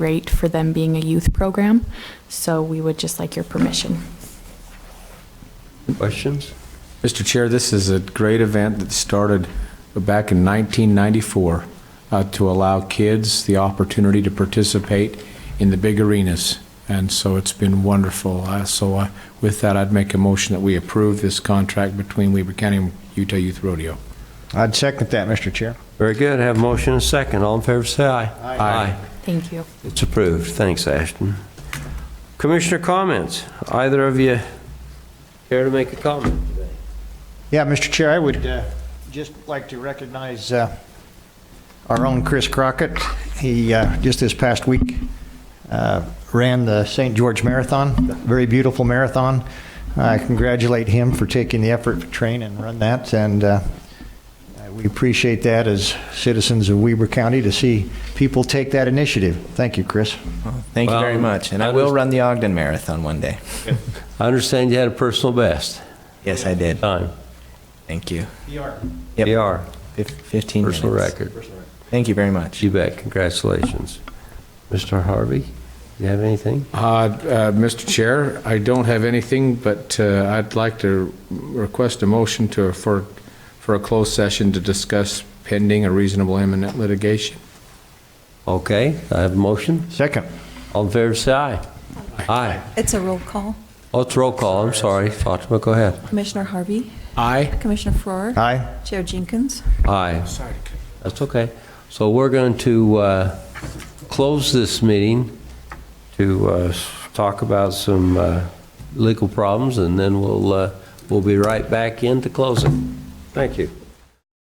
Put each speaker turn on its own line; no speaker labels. rate for them being a youth program. So we would just like your permission.
Questions?
Mr. Chair, this is a great event that started back in 1994 uh, to allow kids the opportunity to participate in the big arenas. And so it's been wonderful. Uh, So uh, with that, I'd make a motion that we approve this contract between Weber County and Utah Youth Rodeo.
I'd second that, Mr. Chair.
Very good. Have a motion and a second. All in favor, say aye. Aye.
Thank you.
It's approved. Thanks, Ashton. Commissioner comments? Either of you care to make a comment?
Yeah, Mr. Chair, I would uh, just like to recognize uh, our own Chris Crockett. He, uh, just this past week, uh, ran the St. George Marathon, very beautiful marathon. I congratulate him for taking the effort to train and run that, and uh, we appreciate that as citizens of Weber County to see people take that initiative. Thank you, Chris.
Thank you very
Well,
much. And
I
I will
was-
run the Ogden Marathon one day.
I understand you had a personal best
Yes, I did.
time.
Thank you. Yep.
PR,
Fif- 15
personal
minutes.
record.
Thank you very much.
You bet. Congratulations. Mr. Harvey, you have anything?
Uh, uh, Mr. Chair, I don't have anything, but uh, I'd like to request a motion to, for, for a closed session to discuss pending or reasonable imminent litigation.
Okay, I have a motion.
Second.
All in favor, say aye. Aye.
It's a roll call.
Oh, it's roll call. I'm sorry. Fatima, go ahead.
Commissioner Harvey,
Aye.
Commissioner Farrar.
Aye.
Chair Jenkins.
Aye. That's okay. So we're going to uh, close this meeting to uh, s- talk about some uh, legal problems, and then we'll, uh, we'll be right back in to close it. Thank you.